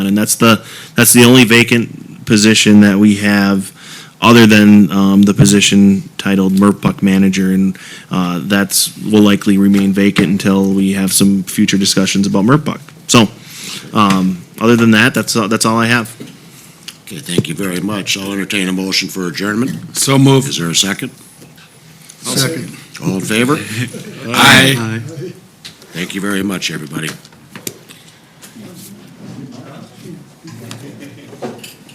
And that's the, that's the only vacant position that we have, other than um, the position titled Merpuck Manager. And uh, that's, will likely remain vacant until we have some future discussions about Merpuck. So, um, other than that, that's, that's all I have. Okay, thank you very much. I'll entertain a motion for adjournment. So moved. Is there a second? Second. All in favor? Aye. Thank you very much, everybody.